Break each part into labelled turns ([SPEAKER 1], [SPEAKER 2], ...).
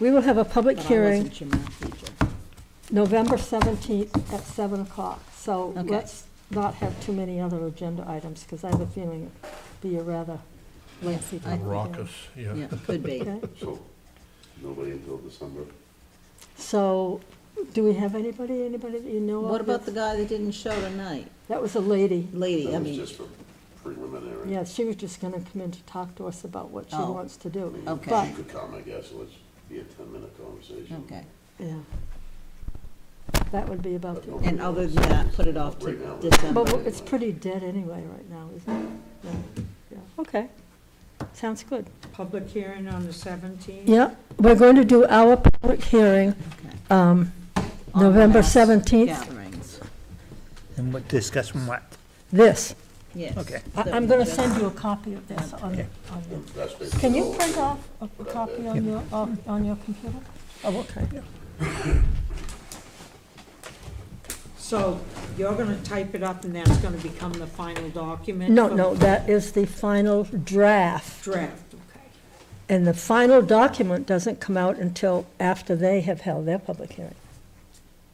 [SPEAKER 1] We will have a public
[SPEAKER 2] But I
[SPEAKER 1] hearing
[SPEAKER 2] wasn't your math teacher.
[SPEAKER 1] November 17th at 7 o'clock. So
[SPEAKER 2] Okay.
[SPEAKER 1] let's not have too many other agenda items, because I have a feeling it'd be a rather lengthy.
[SPEAKER 2] I-
[SPEAKER 1] public hearing.
[SPEAKER 3] Raucous, yeah.
[SPEAKER 2] Yeah, could be.
[SPEAKER 1] Okay.
[SPEAKER 4] So, nobody until December.
[SPEAKER 1] So, do we have anybody, anybody that you know of?
[SPEAKER 2] What about the
[SPEAKER 1] that's-
[SPEAKER 2] guy that didn't show tonight?
[SPEAKER 1] That was a lady.
[SPEAKER 2] Lady, I
[SPEAKER 4] That was
[SPEAKER 2] mean,
[SPEAKER 4] just for preliminary.
[SPEAKER 1] Yeah, she was just gonna come in to talk to us about what she
[SPEAKER 2] Oh.
[SPEAKER 1] wants to do.
[SPEAKER 4] I mean,
[SPEAKER 2] Okay.
[SPEAKER 1] But-
[SPEAKER 4] She could come, I guess, let's be a ten-minute conversation.
[SPEAKER 2] okay.
[SPEAKER 1] Yeah. That would be about
[SPEAKER 4] But
[SPEAKER 1] it.
[SPEAKER 4] nobody
[SPEAKER 2] And other
[SPEAKER 4] else
[SPEAKER 2] than that,
[SPEAKER 4] is
[SPEAKER 2] put it off to
[SPEAKER 4] right now.
[SPEAKER 2] December.
[SPEAKER 1] But it's pretty dead anyway right now, isn't it? Yeah, yeah. Okay, sounds good.
[SPEAKER 5] Public hearing on the 17th?
[SPEAKER 1] Yeah, we're going to do our public hearing, um,
[SPEAKER 2] On
[SPEAKER 1] November
[SPEAKER 2] mass
[SPEAKER 1] 17th,
[SPEAKER 2] Gatherings,
[SPEAKER 6] And what, discuss from what?
[SPEAKER 1] this.
[SPEAKER 2] yes.
[SPEAKER 6] Okay.
[SPEAKER 1] I- I'm gonna send you a copy of this on, on your
[SPEAKER 4] That's basically
[SPEAKER 1] Can you
[SPEAKER 4] all.
[SPEAKER 1] print off a copy on your, on on your computer? Oh, okay.
[SPEAKER 5] So you're going to type it up and that's going to become the final document?
[SPEAKER 1] No,
[SPEAKER 5] for
[SPEAKER 1] no, that is the final draft.
[SPEAKER 5] Oh. Draft, okay.
[SPEAKER 1] And the final document doesn't come out until after they have held their public hearing.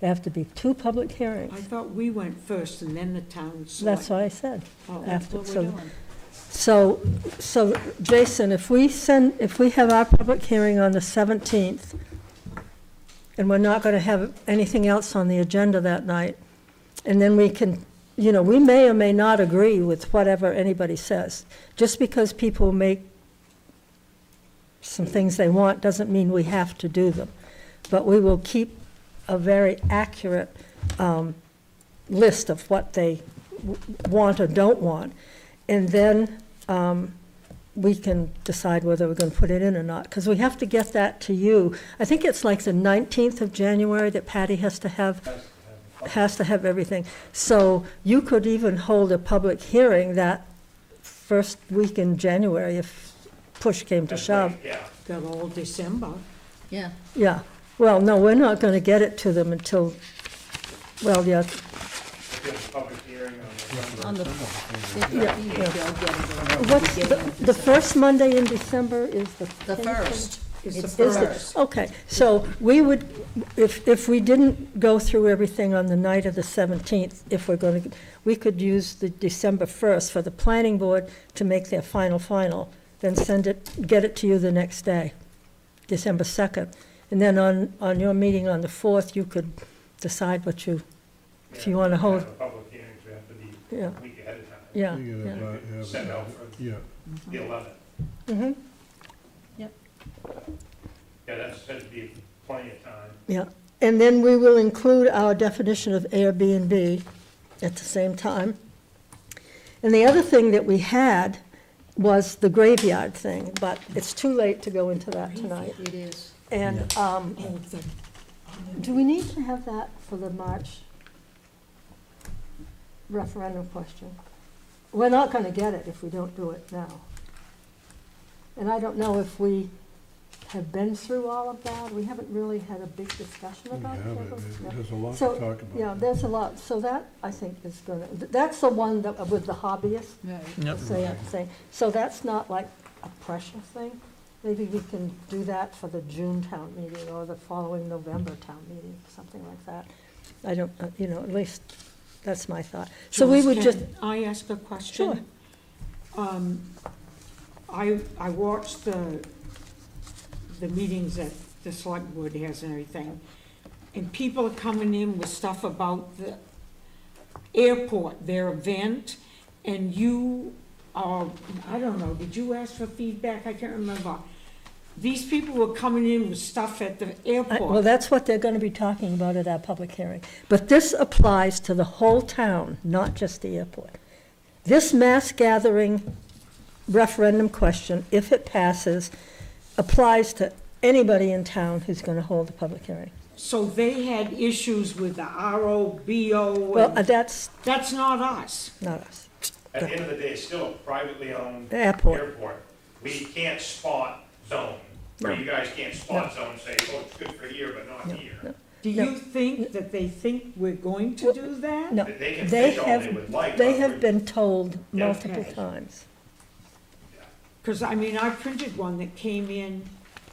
[SPEAKER 1] There have to be two public
[SPEAKER 5] I
[SPEAKER 1] hearings.
[SPEAKER 5] thought we went first and then the town
[SPEAKER 1] That's
[SPEAKER 5] select.
[SPEAKER 1] what I said.
[SPEAKER 5] Oh,
[SPEAKER 1] after,
[SPEAKER 5] what we're
[SPEAKER 1] so-
[SPEAKER 5] doing.
[SPEAKER 1] So, so Jason, if we send, if we have our public hearing on the 17th, and we're not going to have anything else on the agenda that night, and then we can, you know, we may or may not agree with whatever anybody says. Just because people make some things they want doesn't mean we have to do them. But we will keep a very accurate um, list of what they w- want or don't want. And then um, we can decide whether we're going to put it in or not, because we have to get that to you. I think it's like the 19th of January that Patty has to have, has to have everything. So you could even hold a public hearing that first week in January if push came to shove.
[SPEAKER 5] Got all December.
[SPEAKER 2] Yeah,
[SPEAKER 1] Yeah, well, no, we're not going to get it to them until, well, yeah,
[SPEAKER 2] on the, if you
[SPEAKER 1] Yeah,
[SPEAKER 2] if you
[SPEAKER 1] yeah.
[SPEAKER 2] don't get it, it'll be
[SPEAKER 1] what's, the
[SPEAKER 2] given
[SPEAKER 1] the first Monday in December is the.
[SPEAKER 2] The first,
[SPEAKER 5] It's the
[SPEAKER 2] It's-
[SPEAKER 1] Is the-
[SPEAKER 5] first.
[SPEAKER 1] Okay, so we would, if, if we didn't go through everything on the night of the 17th, if we're going to, we could use the December 1st for the planning board to make their final, final, then send it, get it to you the next day, December 2nd. And then on, on your meeting on the 4th, you could decide what you, if you want to hold,
[SPEAKER 7] Have a public hearings, we have to be
[SPEAKER 1] yeah,
[SPEAKER 7] a week ahead of time,
[SPEAKER 1] yeah.
[SPEAKER 8] You
[SPEAKER 1] yeah.
[SPEAKER 8] gotta buy- have-
[SPEAKER 7] send out for
[SPEAKER 8] Yeah,
[SPEAKER 7] the eleventh.
[SPEAKER 1] Mhm,
[SPEAKER 7] Yeah, that's said to be plenty of time.
[SPEAKER 1] Yeah, and then we will include our definition of Airbnb at the same time. And the other thing that we had was the graveyard thing, but it's too late to go into that Oh, tonight.
[SPEAKER 2] it is.
[SPEAKER 1] And, um,
[SPEAKER 2] Oh,
[SPEAKER 1] do we need to have that for the March referendum question? We're not gonna get it if we don't do it now. And I don't know if we have been through all of that, we haven't really had a big discussion
[SPEAKER 8] we
[SPEAKER 1] about
[SPEAKER 8] have it,
[SPEAKER 1] it.
[SPEAKER 8] There's-
[SPEAKER 1] Yeah.
[SPEAKER 8] there's a lot
[SPEAKER 1] So,
[SPEAKER 8] to talk about.
[SPEAKER 1] Yeah, there's a lot, so that, I think, is gonna, th- that's the one that, with the hobbyists,
[SPEAKER 6] Yep.
[SPEAKER 1] say, say, so that's not like a pressure thing. Maybe we can do that for the June town meeting or the following November town meeting, something like that. I don't, uh, you know, at least, that's my thought. So we would
[SPEAKER 5] George,
[SPEAKER 1] just,
[SPEAKER 5] can I ask a question? Um, I, I watched the, the meetings that the select board has and everything, and people are coming in with stuff about the airport, their event, and you, uh, I don't know, did you ask for feedback? I can't remember. These people were coming in with stuff at the
[SPEAKER 1] I- well,
[SPEAKER 5] airport.
[SPEAKER 1] that's what they're gonna be talking about at our public hearing. But this applies to the whole town, not just the airport. This mass gathering referendum question, if it passes, applies to anybody in town who's gonna hold a public hearing.
[SPEAKER 5] So they had issues with the RO, BO,
[SPEAKER 1] Well, uh,
[SPEAKER 5] and
[SPEAKER 1] that's
[SPEAKER 5] that's not us.
[SPEAKER 1] not us.
[SPEAKER 7] At the end of the day, it's still a privately owned
[SPEAKER 1] Airport.
[SPEAKER 7] airport. We can't spot zone, or
[SPEAKER 1] No.
[SPEAKER 7] you guys can't spot zone and say, oh, it's good for here, but not here.
[SPEAKER 5] Do
[SPEAKER 1] No.
[SPEAKER 5] you think that they think we're going to do that?
[SPEAKER 1] No,
[SPEAKER 7] They can
[SPEAKER 1] they
[SPEAKER 7] fish all they would like,
[SPEAKER 1] have, they
[SPEAKER 7] but
[SPEAKER 1] have
[SPEAKER 7] we-
[SPEAKER 1] been told
[SPEAKER 7] Yeah.
[SPEAKER 1] multiple
[SPEAKER 5] Okay.
[SPEAKER 1] times.
[SPEAKER 5] Because, I mean, I printed one that came in